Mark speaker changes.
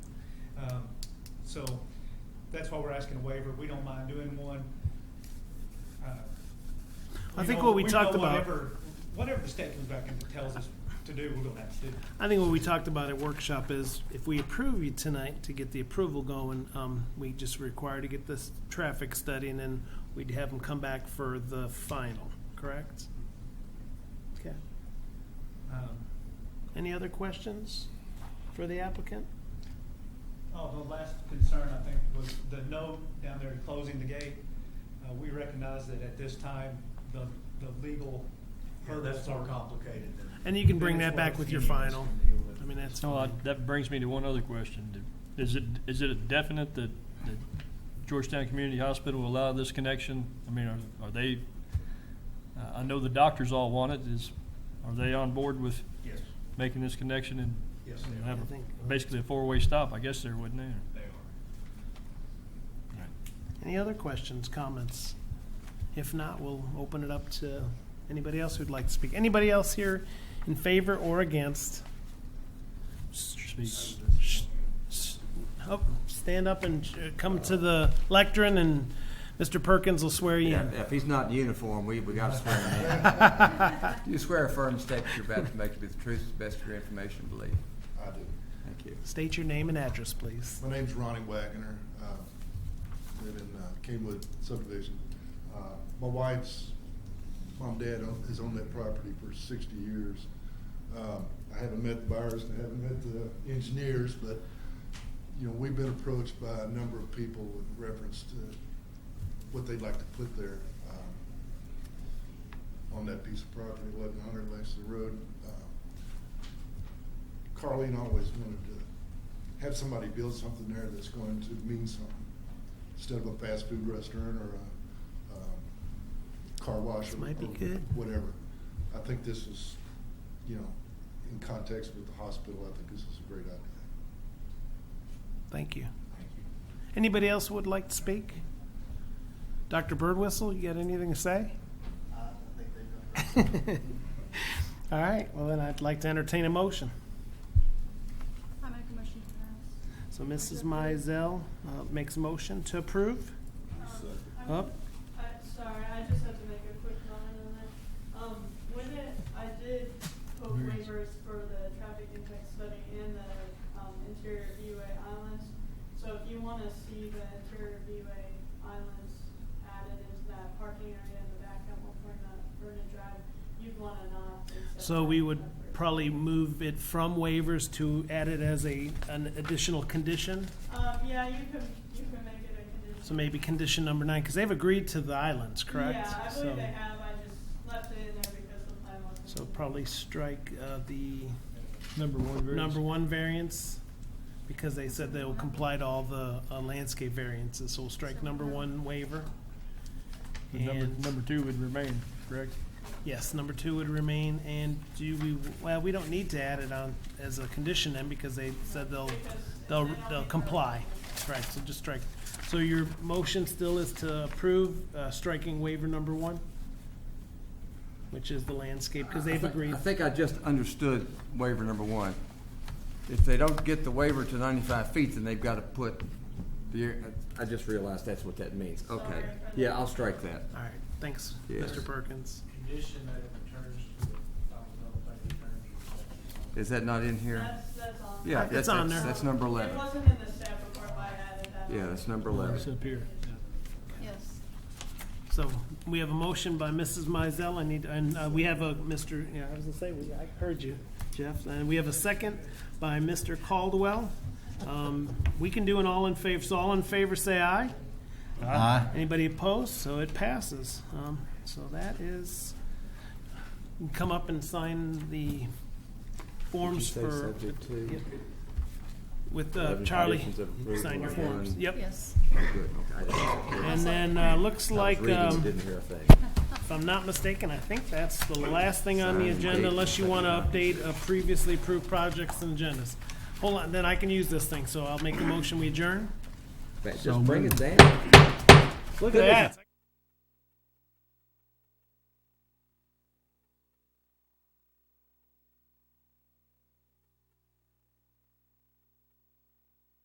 Speaker 1: Um, So that's why we're asking a waiver. We don't mind doing one. Uh,
Speaker 2: I
Speaker 1: you
Speaker 2: think
Speaker 1: know,
Speaker 2: what we
Speaker 1: know
Speaker 2: talked about-
Speaker 1: Whatever, whatever the state comes back and tells us to do, we're gonna have to do.
Speaker 2: I think what we talked about at workshop is if we approve you tonight to get the approval going, um, we just require to get this traffic study and then we'd have them come back for the final, correct? Okay.
Speaker 1: Um,
Speaker 2: Any other questions for the applicant?
Speaker 1: Oh, the last concern, I think, was the note down there closing the gate. Uh, we recognize that at this time, the, the legal
Speaker 3: Yeah,
Speaker 1: hurdles
Speaker 3: that's
Speaker 1: are
Speaker 3: more
Speaker 1: complicated.
Speaker 3: complicated than.
Speaker 2: And you can bring
Speaker 3: than
Speaker 2: that
Speaker 3: it's
Speaker 2: back
Speaker 3: what
Speaker 2: with your
Speaker 3: you guys
Speaker 2: final.
Speaker 3: can deal with.
Speaker 2: I mean, that's
Speaker 4: Well,
Speaker 2: fine.
Speaker 4: I- that brings me to one other question. Is it, is it definite that that Georgetown Community Hospital will allow this connection? I mean, are, are they, uh, I know the doctors all want it, is, are they on board with
Speaker 3: Yes,
Speaker 4: making this connection and
Speaker 3: yes,
Speaker 4: and
Speaker 3: they are.
Speaker 4: have
Speaker 2: I think-
Speaker 4: basically a four-way stop, I guess there, wouldn't eh?
Speaker 3: They
Speaker 4: they?
Speaker 3: are.
Speaker 2: Any other questions, comments? If not, we'll open it up to anybody else who'd like to speak. Anybody else here in favor or against?
Speaker 4: Speak.
Speaker 2: Oh, stand up and uh, come to the lectern, and Mr. Perkins will swear you
Speaker 5: Yeah,
Speaker 2: in.
Speaker 5: if he's not in uniform, we, we gotta swear him in. Do you swear a firm statement you're about to make to be the truth, to the best of your information, believe?
Speaker 6: I do.
Speaker 5: Thank you.
Speaker 2: State your name and address, please.
Speaker 6: My name's Ronnie Wagner. Uh, live in uh, Kingwood subdivision. Uh, my wife's mom and dad own, has owned that property for 60 years. Um, I haven't met the buyers and I haven't met the engineers, but you know we've been approached by a number of people in reference to what they'd like to put there um, on that piece of property, 1100 Langston Road. Uh, Carlene always wanted to have somebody build something there that's going to mean something. Instead of a fast food restaurant or a, um, car wash
Speaker 2: This
Speaker 6: or
Speaker 2: might be
Speaker 6: or
Speaker 2: good.
Speaker 6: whatever. I think this is, you know, in context with the hospital, I think this is a great idea.
Speaker 2: Thank you.
Speaker 3: Thank you.
Speaker 2: Anybody else who would like to speak? Dr. Birdwhistle, you got anything to say?
Speaker 3: I think they've done.
Speaker 2: All right, well, then I'd like to entertain a motion.
Speaker 7: I make a motion to pass.
Speaker 2: So Mrs. Mizell uh, makes a motion to approve.
Speaker 8: I'm-
Speaker 2: Up.
Speaker 8: I, sorry, I just have to make a quick comment on that. Um, when it, I did quote waivers for the traffic impact study and the, um, interior viewway islands. So if you wanna see the interior viewway islands added into that parking area in the back at one point on Vernon Drive, you'd wanna not. accept
Speaker 2: So we
Speaker 8: that
Speaker 2: would
Speaker 8: separate.
Speaker 2: probably move it from waivers to add it as a, an additional condition.
Speaker 8: Um, yeah, you can, you can make it a condition.
Speaker 2: So maybe condition number nine, because they've agreed to the islands, correct?
Speaker 8: Yeah, I
Speaker 2: So-
Speaker 8: believe they have, I just left it in there because the plan wasn't.
Speaker 2: So probably strike uh, the
Speaker 4: Number one
Speaker 2: number one variance, because they said they will comply to all the uh, landscape variances, so we'll strike number one waiver.
Speaker 4: Number,
Speaker 2: And-
Speaker 4: number two would remain, correct?
Speaker 2: Yes, number two would remain, and do we, well, we don't need to add it on as a condition then, because they said they'll, they'll, they'll comply. That's right, so just strike. So your motion still is to approve uh, striking waiver number one? Which is the landscape, because
Speaker 5: I
Speaker 2: they've
Speaker 5: think-
Speaker 2: agreed.
Speaker 5: I think I just understood waiver number one. If they don't get the waiver to ninety-five feet, then they've gotta put the, I just realized that's what that means. Okay.
Speaker 8: Sorry.
Speaker 5: Yeah, I'll strike that.
Speaker 2: All right, thanks,
Speaker 5: Yes.
Speaker 2: Mr. Perkins.
Speaker 3: Condition that it returns to the, I don't know if they return to
Speaker 5: Is that not in here?
Speaker 8: That's, that's on.
Speaker 5: Yeah,
Speaker 2: It's
Speaker 5: that's,
Speaker 2: on
Speaker 5: that's,
Speaker 2: there.
Speaker 5: that's number
Speaker 8: It
Speaker 5: eleven.
Speaker 8: wasn't in the staff report, but I added that.
Speaker 5: Yeah,
Speaker 8: on.
Speaker 5: that's number
Speaker 4: It's
Speaker 5: eleven.
Speaker 4: up here.
Speaker 7: Yes.
Speaker 2: So we have a motion by Mrs. Mizell, I need, and uh, we have a Mr., yeah, I was gonna say, we- I heard you, Jeff, and we have a second by Mr. Caldwell. Um, We can do an all in favor, so all in favor, say aye. Aye. Anybody opposed? So it passes. Um, So that is, you can come up and sign the forms
Speaker 5: Did you say
Speaker 2: for,
Speaker 5: subject to?
Speaker 2: Yep. with uh, Charlie.
Speaker 5: Conditions of approval
Speaker 2: Sign your
Speaker 5: and-
Speaker 2: forms, yep.
Speaker 7: Yes.
Speaker 5: Oh, good, okay. I just-
Speaker 2: And then, uh, looks
Speaker 5: I was
Speaker 2: like,
Speaker 5: reading and
Speaker 2: um,
Speaker 5: Didn't hear a thing.
Speaker 2: If I'm not mistaken, I think that's the last thing on the
Speaker 5: Sign
Speaker 2: agenda,
Speaker 5: date.
Speaker 2: unless you want to update uh, previously approved projects and agendas. Hold on, then I can use this thing, so I'll make the motion, we adjourn.
Speaker 5: Just bring it down.
Speaker 2: Look at that.